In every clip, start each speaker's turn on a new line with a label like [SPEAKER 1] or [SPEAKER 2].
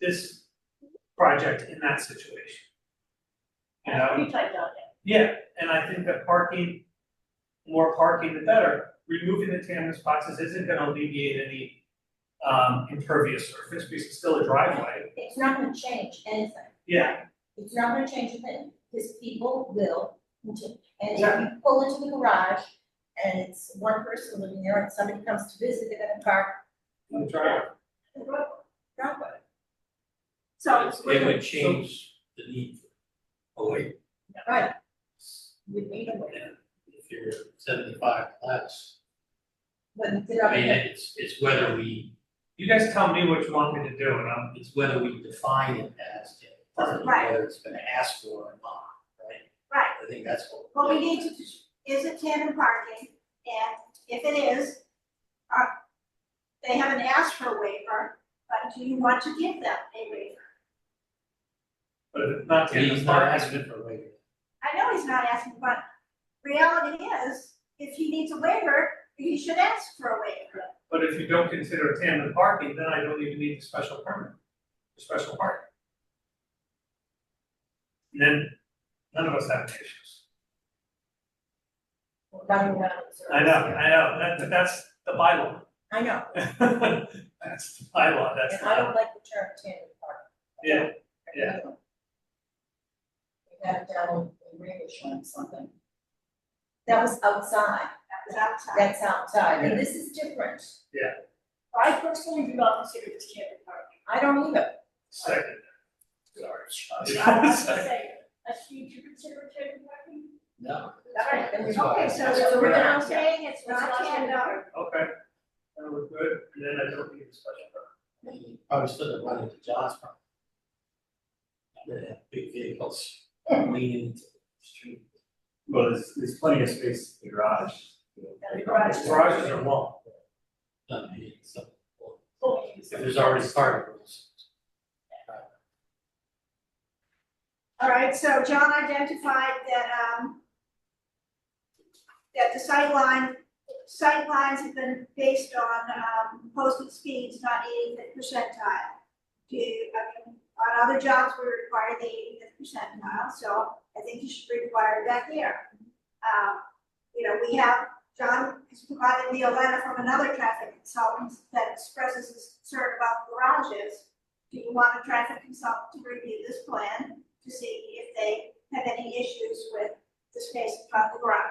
[SPEAKER 1] this project in that situation. You
[SPEAKER 2] That's
[SPEAKER 1] know?
[SPEAKER 2] pretty tight down there.
[SPEAKER 1] Yeah, and I think that parking, more parking the better, removing the tandem boxes isn't gonna alleviate any um impervious surface, because it's still a driveway,
[SPEAKER 2] It's not gonna change anything.
[SPEAKER 1] yeah,
[SPEAKER 2] It's not gonna change a thing, because people will continue. And if you
[SPEAKER 1] Exactly.
[SPEAKER 2] pull into the garage and it's one person living there and somebody comes to visit, they're gonna park
[SPEAKER 1] in the driveway.
[SPEAKER 2] in the road- driveway.
[SPEAKER 3] So
[SPEAKER 4] It it would change the need. for a wait,
[SPEAKER 2] Right. We need a way,
[SPEAKER 4] if you're seventy-five less,
[SPEAKER 2] but it's
[SPEAKER 4] I mean,
[SPEAKER 2] up
[SPEAKER 4] it's, it's whether we,
[SPEAKER 1] You guys tell me which one we to do, and I'm,
[SPEAKER 4] it's whether we define it as to
[SPEAKER 5] Right.
[SPEAKER 4] whether it's gonna ask for or not, right?
[SPEAKER 5] Right.
[SPEAKER 4] I think that's what.
[SPEAKER 5] What we need to, do is it tandem parking, and if it is, uh, they haven't asked for a waiver, but do you want to give them a waiver?
[SPEAKER 1] but if it's not
[SPEAKER 4] He's
[SPEAKER 1] tandem
[SPEAKER 4] not
[SPEAKER 1] parking,
[SPEAKER 4] asking for a waiver.
[SPEAKER 5] I know he's not asking, but reality is, if he needs a waiver, he should ask for a waiver.
[SPEAKER 1] but if you don't consider tandem parking, then I don't even need the special permit, the special parking. And Then, none of us have any issues.
[SPEAKER 2] and running around. in circles.
[SPEAKER 1] I know, I know, that, that- that's the bylaw.
[SPEAKER 2] I know,
[SPEAKER 1] That's the bylaw, that's
[SPEAKER 2] and I
[SPEAKER 1] the,
[SPEAKER 2] don't like the term tandem park.
[SPEAKER 1] yeah, yeah.
[SPEAKER 2] We had it down in English on something. That was outside,
[SPEAKER 5] That was outside.
[SPEAKER 2] that's outside, and this is different.
[SPEAKER 6] I personally do not consider this tandem parking.
[SPEAKER 2] I don't either.
[SPEAKER 1] second.
[SPEAKER 6] I
[SPEAKER 1] Sorry.
[SPEAKER 6] have to say, I see you consider tandem parking.
[SPEAKER 4] No.
[SPEAKER 6] Alright,
[SPEAKER 2] then we-
[SPEAKER 5] Okay,
[SPEAKER 2] So
[SPEAKER 5] so so
[SPEAKER 1] we're
[SPEAKER 5] we're now
[SPEAKER 2] not-
[SPEAKER 5] saying it's not
[SPEAKER 6] not
[SPEAKER 5] tandem.
[SPEAKER 6] tandem.
[SPEAKER 1] Okay, that was good, and then I don't need a special permit.
[SPEAKER 4] You Probably still have run into John's problem. They have big vehicles leaning into the street.
[SPEAKER 7] Well, there's, there's plenty of space in the garage. you know.
[SPEAKER 6] The garage is-
[SPEAKER 1] Garages are long,
[SPEAKER 4] Not me, so, well,
[SPEAKER 6] Oh,
[SPEAKER 4] if There's already parking rules.
[SPEAKER 5] All right, so John identified that, um, that the sightline, sightlines have been based on, um, posted speeds, not eighty-fifth percentile. Do, I mean, on other jobs, we require the eighty-fifth percentile, so I think you should require that here. Um, you know, we have, John has provided me a letter from another traffic consultant that expresses his concern about garages. Do you want a traffic consultant to review this plan? to see if they have any issues with the space in front of the garage.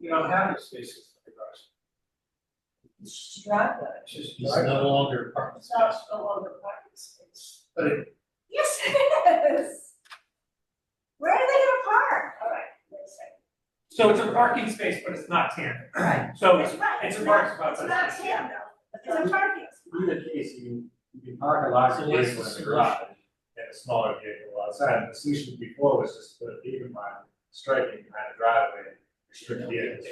[SPEAKER 1] you don't have any spaces in the garage.
[SPEAKER 2] It's just a driveway.
[SPEAKER 1] It's just
[SPEAKER 4] It's
[SPEAKER 1] driveway.
[SPEAKER 4] no longer apartment
[SPEAKER 6] It's not
[SPEAKER 4] space.
[SPEAKER 6] no longer parking space.
[SPEAKER 1] But it,
[SPEAKER 6] Yes, it is.
[SPEAKER 5] Where are they gonna park?
[SPEAKER 6] Alright, wait a second.
[SPEAKER 1] so it's a parking space, but it's not tandem.
[SPEAKER 2] Right.
[SPEAKER 1] So
[SPEAKER 5] That's
[SPEAKER 1] it's,
[SPEAKER 5] right,
[SPEAKER 1] it's a
[SPEAKER 5] not-
[SPEAKER 1] parking spot,
[SPEAKER 5] It's
[SPEAKER 1] but
[SPEAKER 5] not
[SPEAKER 1] it's not
[SPEAKER 5] tandem, it's a parking spot.
[SPEAKER 7] In either case, you can, you can park a larger
[SPEAKER 4] So what's
[SPEAKER 7] vehicle in
[SPEAKER 4] the
[SPEAKER 7] the garage and a smaller vehicle outside. The solution before was just to put a beacon line, striping behind the driveway, and restrict vehicles.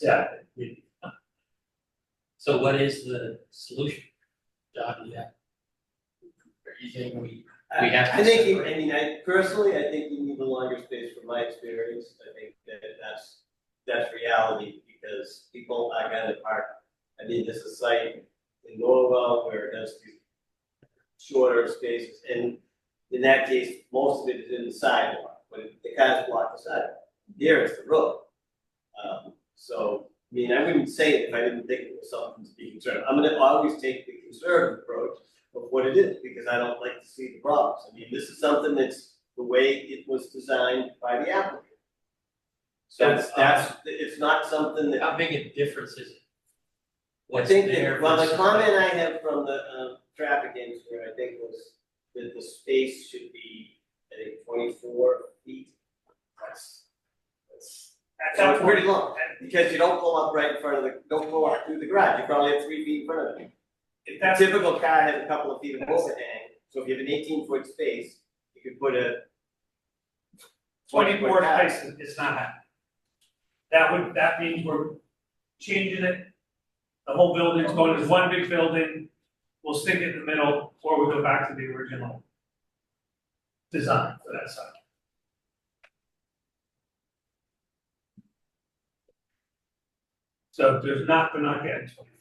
[SPEAKER 7] Yeah, we-
[SPEAKER 4] So what is the solution? John, do you have? Are you saying we, we have to?
[SPEAKER 8] Uh, I think, you-
[SPEAKER 4] separate?
[SPEAKER 8] I mean, I personally, I think you need the longer space from my experience, I think that that's, that's reality, because people are gonna park. I mean, there's a site in Norwell where it does these shorter spaces, and in that case, most of it is in the sidewalk, but the cars block the sidewalk, there is the road. Um, so, I mean, I wouldn't say it if I didn't think it was something to be concerned, I'm gonna always take the conservative approach, of what it is, because I don't like to see the problems. I mean, this is something that's the way it was designed by the applicant. So
[SPEAKER 4] That's-
[SPEAKER 8] that's, that's, it's not something that,
[SPEAKER 4] How big a difference is it?
[SPEAKER 8] I
[SPEAKER 4] What's
[SPEAKER 8] think
[SPEAKER 4] there
[SPEAKER 8] that, well, the
[SPEAKER 4] versus-
[SPEAKER 8] comment I have from the, um, traffic engineer, I think was that the space should be, I think, twenty-four feet. That's, that's,
[SPEAKER 1] at that
[SPEAKER 8] that's
[SPEAKER 1] point,
[SPEAKER 8] pretty long, because you don't pull up right in front of the, don't pull up through the garage, you probably have three feet in front of it.
[SPEAKER 1] if
[SPEAKER 8] A
[SPEAKER 1] that's,
[SPEAKER 8] typical car has a couple of feet of overhang, so if you have an eighteen foot space, you could put a.
[SPEAKER 1] twenty-four
[SPEAKER 8] 20-foot car.
[SPEAKER 1] spaces is not happening. That would, that means we're changing it, the whole building's going as one big building, we'll stick it in the middle, or we go back to the original design for that side. So there's not, we're not getting twenty.